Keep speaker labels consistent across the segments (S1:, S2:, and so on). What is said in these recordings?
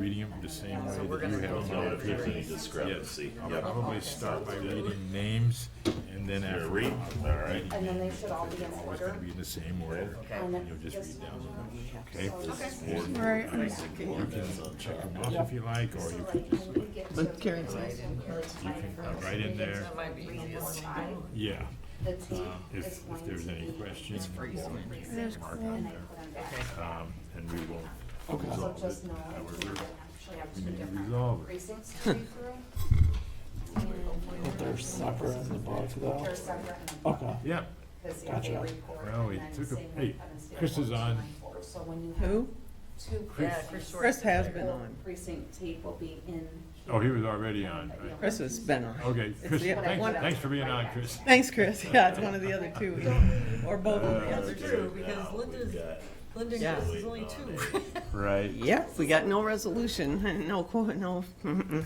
S1: him the same way
S2: So
S1: that
S2: we're
S1: you
S2: gonna go
S1: have
S2: through
S1: done
S2: that
S1: it.
S2: very-
S1: Yes.
S2: Yes.
S3: discrepancy.
S1: I'll
S3: Yep.
S1: probably start by reading names and then
S3: Here,
S1: after.
S3: read. All right.
S2: And then they should all be in
S1: It's gonna
S2: order.
S1: be in the same order.
S3: Okay.
S2: And then
S1: You'll just
S2: this
S1: read
S2: one
S1: down.
S2: we have to
S1: Okay.
S2: solve.
S3: Board-
S4: Right.
S3: I think the board has a
S1: Check them
S3: job.
S1: off if you like, or
S2: So
S1: you
S2: like,
S1: could just,
S2: when we get to
S4: But Karen
S2: the
S4: said I
S2: last one,
S4: didn't
S2: really tight for
S1: uh,
S2: us
S1: right
S2: to
S1: in
S2: get
S1: there.
S2: to
S1: That
S5: might be
S2: three,
S5: easiest.
S2: four, five.
S1: yeah,
S2: The tape
S1: um,
S2: is
S1: if,
S2: going
S1: if there's
S2: to
S1: any
S2: be-
S1: questions.
S5: freezing.
S1: we'll
S4: There's
S1: mark
S4: cool.
S1: on
S2: And I
S1: there.
S2: put them back.
S1: Um, and we will
S2: So
S1: resolve
S2: just
S1: it
S2: know we
S1: however
S2: would actually have two
S1: we may
S2: different
S1: resolve it.
S2: precincts to read through.
S6: But they're separate in the book though?
S2: They're separate.
S6: Okay.
S1: Yeah,
S2: Because if they
S6: Gotcha.
S2: record
S1: Well,
S2: and
S1: it
S2: then
S1: took a-
S2: same with
S1: hey,
S2: Kevin's did
S1: Chris is
S2: one,
S1: on.
S2: nine, four. So when you have
S4: Who?
S2: two
S1: Chris.
S2: precincts,
S4: Chris has been
S2: the
S4: on.
S2: Precinct tape will be in.
S1: oh, he was already on,
S2: but you'll
S1: right.
S4: Chris has been on.
S1: Okay,
S4: It's
S1: Chris,
S4: the-
S1: thanks,
S4: one-
S1: thanks for being on, Chris.
S4: Thanks, Chris. Yeah, it's one of the other two, either- or both of the
S3: Uh,
S4: other
S5: Those are
S4: two.
S5: true, because
S3: now
S5: Linda's-
S3: we've got-
S5: Lyndon
S4: Yeah.
S5: Chris is only two.
S1: Right.
S4: Yep, we got no resolution, and no, qu- no, mm-mm.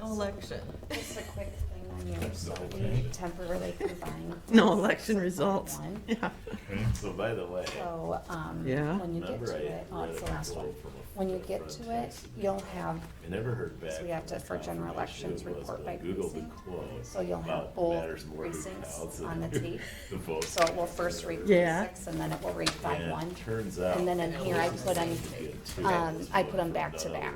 S5: No election.
S2: Just a quick thing on yours, so we temporarily combined.
S4: no election results.
S2: One.
S4: Yeah.
S1: Okay.
S3: So by the way,
S2: So, um,
S4: Yeah.
S2: when you get
S3: remember
S2: to
S3: I
S2: it, oh,
S3: read
S2: it's
S3: a
S2: the last one.
S3: quote from a
S2: When you
S3: friend
S2: get
S3: from
S2: to it,
S3: Texas.
S2: you'll have,
S3: I never heard back.
S2: So we have to, for general elections,
S3: uh,
S2: report by precinct. so you'll have both precincts on the tape. So it will first read
S4: Yeah.
S2: six, and then it will read five one.
S3: Turns out.
S2: And then in here, I put them, um, I put them back to back.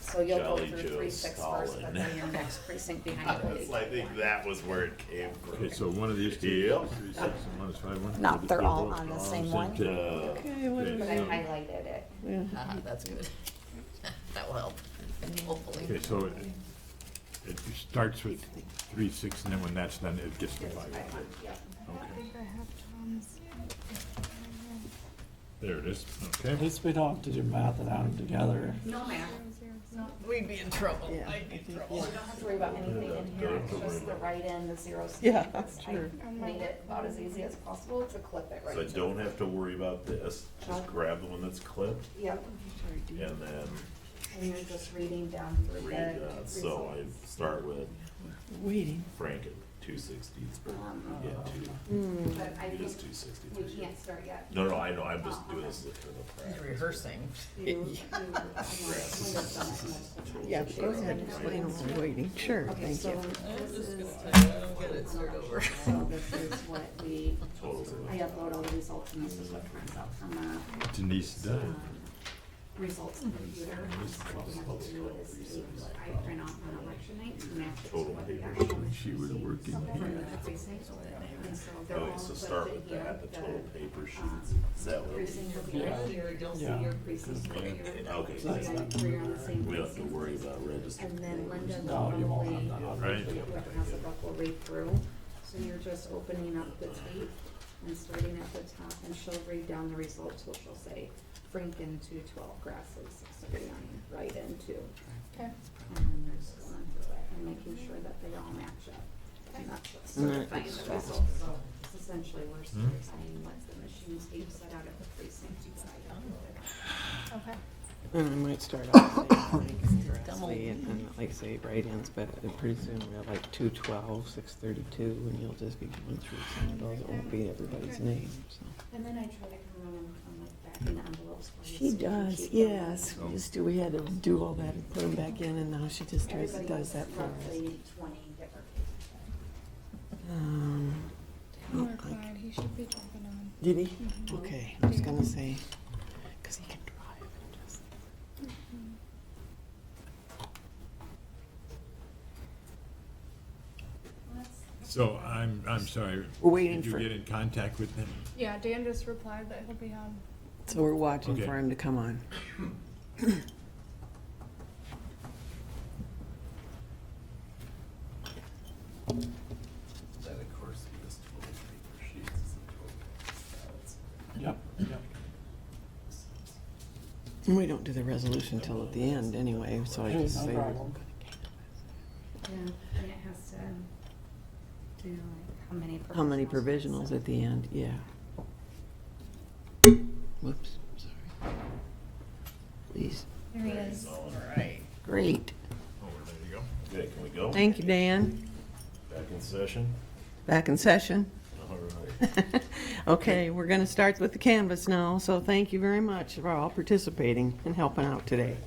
S2: So you'll go
S3: Jolly
S2: through
S3: Joe
S2: three six first, but
S3: Stalin.
S2: then your next precinct behind it will be.
S3: It's like, I think that was where it came from.
S1: Okay, so one of these two,
S3: Yep.
S1: three, six, and one is five, one.
S2: No, they're all
S1: both
S2: on the
S1: on
S2: same one.
S1: tape.
S3: Uh,
S4: Okay, what do
S2: But
S4: we-
S2: I highlighted it.
S5: Ah, That's good. That will help,
S1: Okay,
S5: hopefully.
S1: so it, it starts with three, six, and then when that's done, it gets to five. Okay, there it is,
S6: At
S1: okay.
S6: least we don't have to do math it out together.
S2: No math,
S5: We'd be in trouble.
S4: Yeah.
S5: I'd be in trouble.
S2: you don't have to worry about anything in here, it's just the write-in, the zeros. and
S4: Yeah,
S2: ones. I
S4: sure.
S2: Made it about as easy as possible to clip it right.
S3: So I
S2: to-
S3: Uh, don't have to worry about this, just
S2: Okay.
S3: grab the one that's clipped
S2: Yep,
S3: and then
S2: and you're just reading down through
S3: read
S2: the
S3: that. So
S2: results.
S3: I start with
S4: Waiting.
S3: Frank at two sixty-three, yeah, two,
S2: But I
S3: it is
S2: think
S3: two
S2: we
S3: sixty-three.
S2: can't Oh, start yet.
S3: No, no, I know, I'm just doing this as a kind of practice.
S5: Rehearsing.
S2: You- you-
S4: Yeah, but go ahead and explain while waiting. Sure,
S2: Okay,
S4: thank
S2: so
S4: you.
S5: I'm
S2: this
S5: just
S2: is,
S5: gonna tell you, I don't get it, start over.
S2: so this is what we,
S3: Totals of-
S2: I upload all the results and this is what comes out from the
S1: Denise done.
S2: results of the computer. What we have to do is see what I print off on election night to match it to what the actual.
S1: She was working here.
S2: And so they're all
S3: Okay, Oh, so start
S2: put
S3: with
S2: in
S3: that, the total
S2: the,
S3: paper
S2: um,
S3: sheets, is that what?
S2: Precinct will be right here, you'll see your precinct right here.
S3: Okay,
S2: So you got three on the same
S3: we don't have to
S2: precinct.
S3: worry about registering.
S2: And then Linda
S6: No, you won't have that
S2: normally,
S6: on.
S1: Right.
S2: whoever has a buck will read through. So you're just opening up the tape and starting at the top and she'll read down the results, which will say Franken two twelve grasses six thirty-nine, right in two.
S5: Okay.
S2: And then there's going through it and making sure that they all match up. And that's what's
S4: Mm-hmm.
S2: certifying the results. So it's essentially we're certifying what the machines gave set out at the precinct decided.
S4: I might start off saying, like, Grassley and then, like say write-ins, but pretty soon we have like two twelve, six thirty-two, and you'll just be going through some of those. It won't be everybody's name, so.
S2: And then I try to come around and come like back in envelopes. for
S4: She
S2: you so you can
S4: does,
S2: keep them.
S4: yes. We used to, we had to do all that and put them back in, and now she just tries,
S2: Everybody
S4: does that for us.
S2: roughly 20 different
S4: Um,
S7: Mark Clyde, he should be jumping on.
S4: Did he? Okay, I was gonna say, because he can drive and just.
S1: So I'm, I'm sorry.
S4: We're waiting
S1: Did
S4: for-
S1: you get in contact with them?
S7: Yeah, Dan just replied that he'll be on.
S4: So we're watching
S1: Okay.
S4: for him to come on.
S3: Then, of course, this total paper sheets is the total. ballots.
S6: Yep, yep.
S4: And we don't do the resolution till at the end anyway, so I
S6: Hey,
S4: just
S6: no
S4: say.
S6: problem.
S2: Yeah, and it has to do like how many.
S4: How many provisionals
S2: provisionals and
S4: at the end? Yeah. Whoops, sorry. Please.
S2: stuff. There he is.
S3: So, um,
S5: Right.
S4: Great.
S1: Oh, there you go.
S3: Okay, can we go?
S4: Thank you, Dan.
S3: Back in session?
S4: Back in session.
S3: All right.
S4: Okay, we're gonna start with the canvas now, so thank you very much for all participating and helping out today.